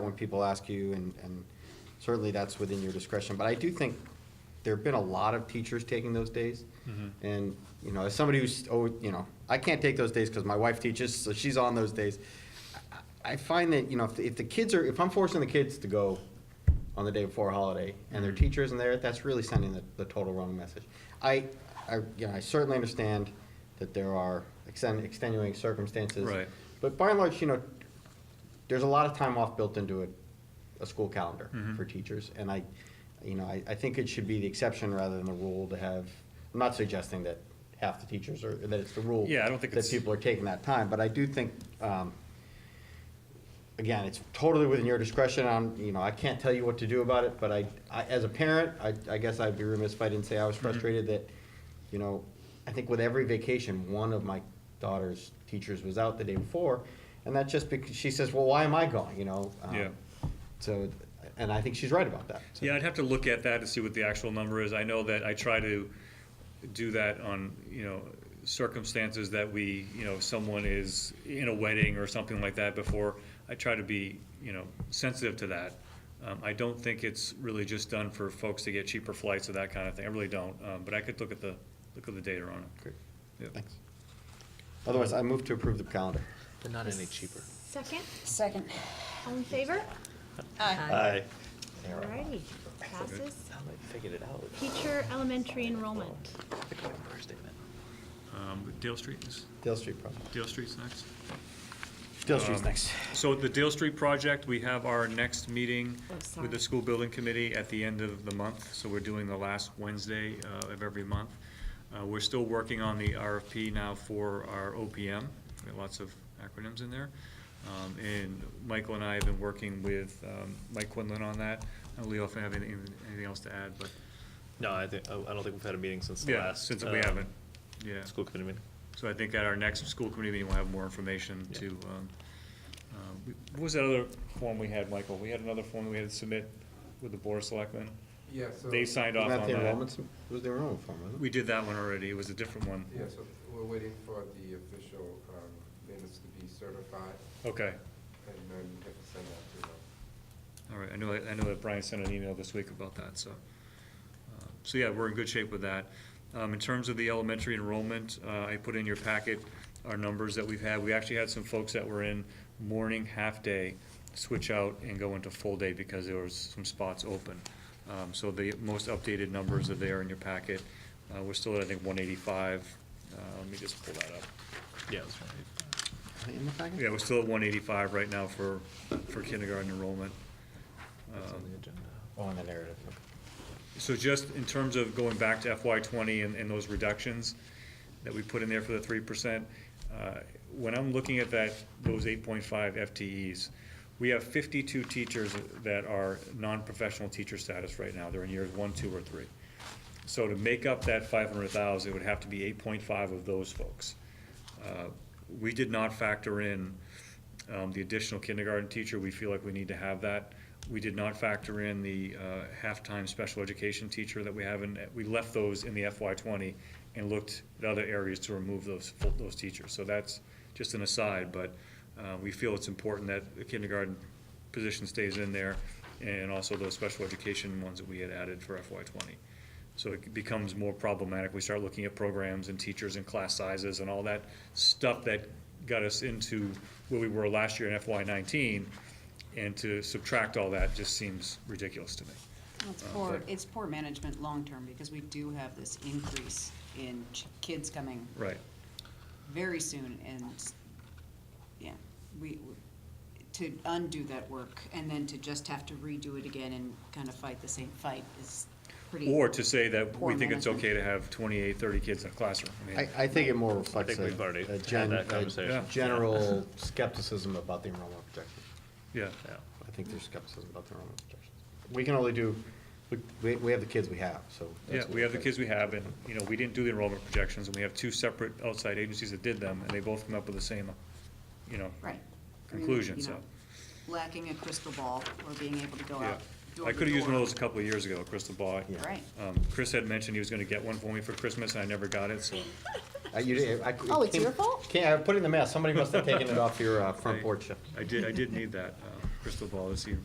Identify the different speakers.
Speaker 1: when people ask you, and, and certainly that's within your discretion. But I do think there've been a lot of teachers taking those days. And, you know, as somebody who's, oh, you know, I can't take those days because my wife teaches, so she's on those days. I- I find that, you know, if, the- if the kids are, if I'm forcing the kids to go on the day before a holiday and their teacher isn't there, that's really sending the, the total wrong message. I, I, you know, I certainly understand that there are exten- extenuating circumstances.
Speaker 2: Right.
Speaker 1: But by and large, you know, there's a lot of time off built into a, a school calendar
Speaker 2: Mm-hmm.
Speaker 1: for teachers, and I, you know, I, I think it should be the exception rather than the rule to have, I'm not suggesting that half the teachers are, that it's the rule.
Speaker 2: Yeah, I don't think it's-
Speaker 1: That people are taking that time, but I do think, um, again, it's totally within your discretion, I'm, you know, I can't tell you what to do about it, but I, I, as a parent, I, I guess I'd be remiss if I didn't say I was
Speaker 2: Mm-hmm.
Speaker 1: frustrated that, you know, I think with every vacation, one of my daughter's teachers was out the day before, and that's just because, she says, well, why am I going, you know? Um,
Speaker 2: Yeah.
Speaker 1: So, and I think she's right about that. So-
Speaker 2: Yeah, I'd have to look at that to see what the actual number is. I know that I try to do that on, you know, circumstances that we, you know, if someone is in a wedding or something like that before. I try to be, you know, sensitive to that. Um, I don't think it's really just done for folks to get cheaper flights or that kind of thing. I really don't. Um, but I could look at the, look at the data on it.
Speaker 1: Great.
Speaker 2: Yeah.
Speaker 1: Thanks. Otherwise, I move to approve the calendar.
Speaker 3: They're not any cheaper.
Speaker 4: Second,
Speaker 5: Second.
Speaker 4: all in favor?
Speaker 1: Aye.
Speaker 4: Alrighty, passes.
Speaker 3: Sound like figured it out.
Speaker 4: Teacher elementary enrollment.
Speaker 3: Pick up first statement.
Speaker 2: Um, Dale Street is,
Speaker 1: Dale Street problem.
Speaker 2: Dale Street's next.
Speaker 1: Dale Street's next.
Speaker 2: Um, So the Dale Street project, we have our next meeting
Speaker 4: Oh, sorry.
Speaker 2: with the school building committee at the end of the month. So we're doing the last Wednesday uh, of every month. Uh, We're still working on the RFP now for our OPM. We've got Lots of acronyms in there. Um, And Michael and I have been working with um, Mike Quinlan on that. I don't know, Leo, if you have anything, anything else to add, but,
Speaker 3: No, I think, I I don't think we've had a meeting since the
Speaker 2: yeah,
Speaker 3: last.
Speaker 2: since we
Speaker 3: um,
Speaker 2: haven't, yeah.
Speaker 3: School committee meeting.
Speaker 2: So I think at our next school committee meeting, we'll have more information to, um, um, we- what was that other form we had, Michael? We had another form we had to submit with the board of selectmen.
Speaker 6: Yeah, so,
Speaker 2: They
Speaker 6: yeah,
Speaker 2: signed off
Speaker 1: Not
Speaker 2: on
Speaker 1: the
Speaker 2: that.
Speaker 1: enrollments, it was the enrollment form, wasn't it?
Speaker 2: We did that one already. It was a different one.
Speaker 6: so we're waiting for the official um, minutes to be certified,
Speaker 2: Okay,
Speaker 6: and then we have to send that to them.
Speaker 2: all right. I know, I know that Brian sent an email this week about that, so. uh, So yeah, we're in good shape with that. Um, in terms of the elementary enrollment, uh, I put in your packet our numbers that we've had. We actually had some folks that were in morning, half-day, switch out and go into full-day because there was some spots open. Um, so the most updated numbers are there in your packet. Uh, we're still at, I think, one eighty-five. Uh, let me just pull that up.
Speaker 3: Yeah, it was right.
Speaker 1: Are they In the packet?
Speaker 2: Yeah, we're still at one eighty-five right now for, for kindergarten enrollment.
Speaker 3: It's on
Speaker 2: Um,
Speaker 3: the agenda.
Speaker 1: Oh, in the narrative, okay.
Speaker 2: So just in terms of going back to FY twenty and, and those reductions that we put in there for the three percent, uh, when I'm looking at that, those eight point five FTEs, we have fifty-two teachers that are non-professional teacher status right now. They're in years one, two, or three. So to make up that five hundred thousand, it would have to be eight point five of those folks. Uh, We did not factor in um, the additional kindergarten teacher, we feel like we need to have that. We did not factor in the uh, half-time special education teacher that we have, and we left those in the FY twenty and looked at other areas to remove those, full- those teachers. So that's just an aside, but uh, we feel it's important that the kindergarten position stays in there, and also those special education ones that we had added for FY twenty. So it becomes more problematic. We start looking at programs and teachers and class sizes and all that stuff that got us into where we were last year in FY nineteen. And to subtract all that just seems ridiculous to me.
Speaker 5: It's
Speaker 2: Uh,
Speaker 5: poor,
Speaker 2: but-
Speaker 5: it's poor management long-term, because we do have this increase in ch- kids coming
Speaker 2: Right.
Speaker 5: very soon, and, s- yeah, we, we- to undo that work, and then to just have to redo it again and kind of fight the same fight is pretty.
Speaker 2: Or to say that we
Speaker 5: Poor
Speaker 2: think it's
Speaker 5: management.
Speaker 2: okay to have 28, 30 kids in a classroom. I mean,
Speaker 1: I, I think it more
Speaker 3: I
Speaker 1: reflects
Speaker 3: think
Speaker 1: a,
Speaker 3: we've already
Speaker 1: a
Speaker 3: had
Speaker 1: gen-
Speaker 3: that
Speaker 1: a
Speaker 3: conversation.
Speaker 1: general skepticism about the enrollment projections.
Speaker 2: Yeah,
Speaker 3: Yeah.
Speaker 1: I think there's skepticism about the enrollment projections. We can only do, we- we, we have the kids we have, so.
Speaker 2: yeah,
Speaker 1: that's
Speaker 2: we have the
Speaker 1: what-
Speaker 2: kids we have, and, you know, we didn't do the enrollment projections, and we have two separate outside agencies that did them, and they both come up with the same, you know,
Speaker 5: Right. I mean,
Speaker 2: conclusion,
Speaker 5: you
Speaker 2: so.
Speaker 5: know, Lacking a crystal ball, or being able to go
Speaker 2: Yeah,
Speaker 5: out. door
Speaker 2: I
Speaker 5: to
Speaker 2: could have used one of
Speaker 5: door.
Speaker 2: those a couple of years ago, a crystal ball.
Speaker 1: Yeah.
Speaker 5: Right.
Speaker 2: Um, Chris had mentioned he was gonna get one for me for Christmas, and I never got it, so.
Speaker 1: Uh, you did- I-
Speaker 5: Oh, it's
Speaker 1: came-
Speaker 5: your fault?
Speaker 1: Can't, I put it in the mail, somebody must have taken it off your uh, front
Speaker 2: I-
Speaker 1: porch.
Speaker 2: I did, I did need that, uh, crystal ball this year.